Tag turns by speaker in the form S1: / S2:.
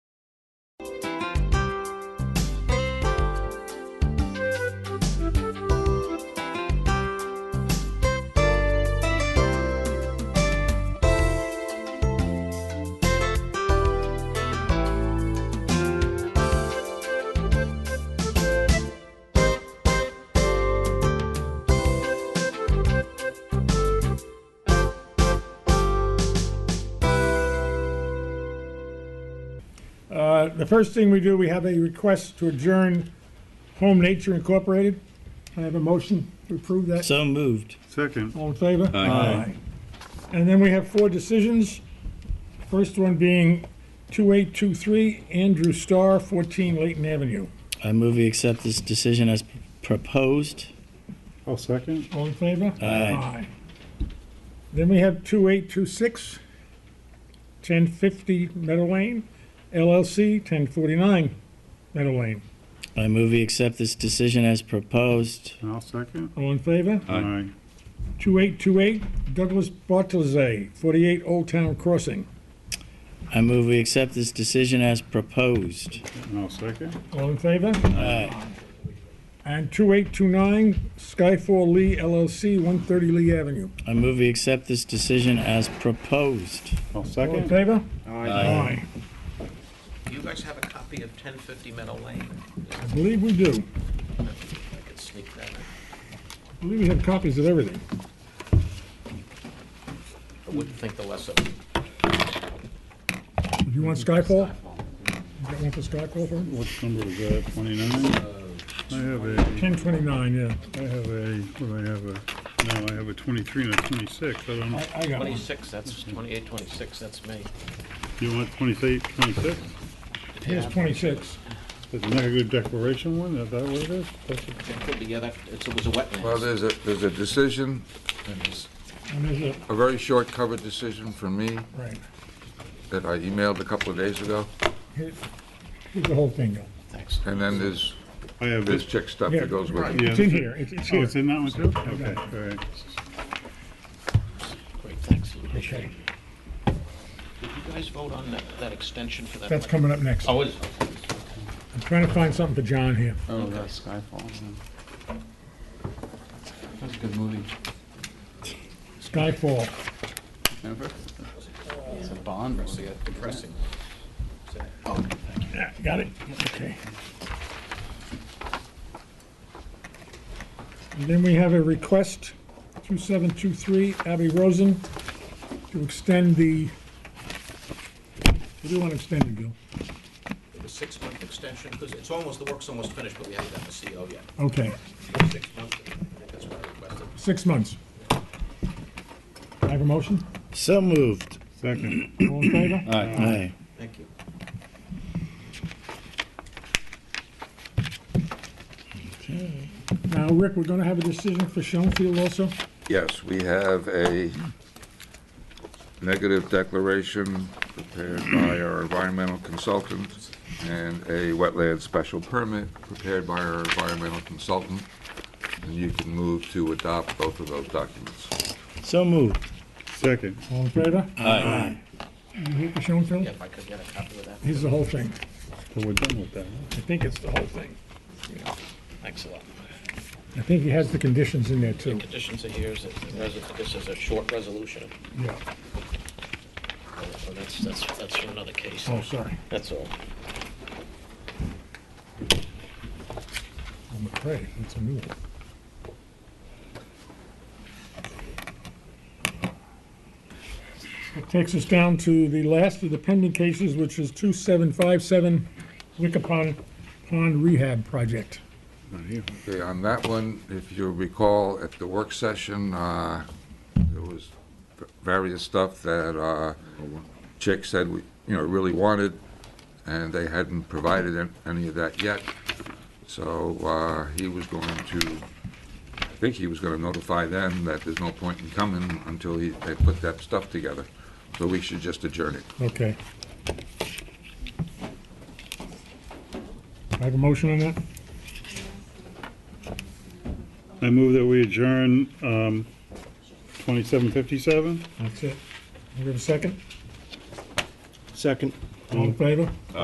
S1: Uh, The first thing we do, we have a request to adjourn Home Nature Incorporated. I have a motion to approve that.
S2: So moved.
S3: Second.
S1: All in favor?
S2: Aye. Aye.
S1: And then we have four decisions. First one being 2823 Andrew Starr, 14 Layton Avenue.
S2: I move we accept this decision as proposed.
S3: I'll second.
S1: All in favor?
S2: Aye.
S1: Then we have 2826 1050 Meadow Lane LLC, 1049 Meadow Lane.
S2: I move we accept this decision as proposed.
S3: And I'll second.
S1: All in favor?
S2: Aye.
S1: 2828 Douglas Bartolozzi, 48 Old Town Crossing.
S2: I move we accept this decision as proposed.
S3: And I'll second.
S1: All in favor?
S2: Aye.
S1: And 2829 Skyfall Lee LLC, 130 Lee Avenue.
S2: I move we accept this decision as proposed.
S3: I'll
S1: All in
S3: second.
S1: favor? Aye.
S4: Do you guys have a copy of 1050 Meadow Lane?
S1: I believe we do.
S4: I could sneak that in.
S1: I believe we have copies of everything.
S4: I wouldn't think the less of it.
S1: Do you want Skyfall? You got one for Skyfall for him?
S3: What number is that, twenty-nine? I have a,
S1: 1029, yeah.
S3: I have a, what do I have a, no, I have a twenty-three and a twenty-six. I don't know.
S1: I, I got one.
S4: 26, that's 28, 26, that's me.
S3: You want twenty-eight, twenty-six?
S1: Here's 26.
S3: Isn't that a good declaration one? Is that what it is? That's a-
S4: It could be, yeah, that, it's- it was a
S5: Well,
S4: wetland.
S5: there's a, there's a decision, and it's
S1: And there's
S5: a very short covered decision from me
S1: a, right.
S5: that I emailed a couple of days ago,
S1: Here- Here's the whole thing, though.
S4: Thanks.
S5: and then there's,
S3: I have
S5: there's
S3: this.
S5: chick stuff that goes with it.
S3: Yeah,
S1: It's in
S3: that's it.
S1: here, it's, it's
S3: Oh,
S1: here.
S3: it's in that one too? Okay, all right.
S4: Great, thanks. Did
S1: Okay,
S4: you guys vote on that, that extension for that?
S1: That's
S4: wetland?
S1: coming up next.
S4: Oh, it is.
S1: I'm trying to find something for John here.
S6: Oh, that's Skyfall. yeah. That's a good movie.
S1: Skyfall.
S6: Remember? It's a Bond movie. I think, isn't
S4: Depressing.
S6: it?
S1: Yeah, got it? Okay. And then we have a request, 2723 Abby Rosen, to extend the, we do want to extend it, Bill.
S4: The six-month extension, because it's almost, the work's almost finished, but we haven't got the CO yet.
S1: Okay,
S4: Six months, I think that's what I requested.
S1: six months. I have a motion?
S2: So moved.
S3: Second.
S1: All in favor?
S2: Uh. Aye.
S4: Thank you.
S1: Now, Rick, we're going to have a decision for Schoenfield also?
S5: Yes, we have a negative declaration prepared by our environmental consultant and a wetland special permit prepared by our environmental consultant, and you can move to adopt both of those documents.
S2: So moved.
S3: Second.
S1: All in favor?
S2: Aye.
S1: You here for Schoenfield?
S4: Yeah, if I could get a copy of that.
S1: Here's the whole thing.
S3: So we're done with that. huh?
S1: I think it's the whole thing.
S4: Thanks a lot.
S1: I think he has the conditions in there too.
S4: Conditions are here, is that the resi- this is a short resolution,
S1: Yeah.
S4: so that's, that's, that's for another case.
S1: Oh, sorry.
S4: That's all.
S1: I'm afraid, it's a new one. That takes us down to the last of the pending cases, which is 2757 Wickapon Pond Rehab Project.
S5: Okay, on that one, if you recall, at the work session, uh, there was various stuff that uh, Chick said, we you know, really wanted, and they hadn't provided an- any of that yet. So uh, he was going to, I think he was going to notify them that there's no point in coming until he, they put that stuff together. So we should just adjourn it.
S1: Okay. I have a motion on that?
S3: I move that we adjourn, um, twenty-seven fifty-seven?
S1: That's it. You have a second?
S7: Second.
S1: All in favor?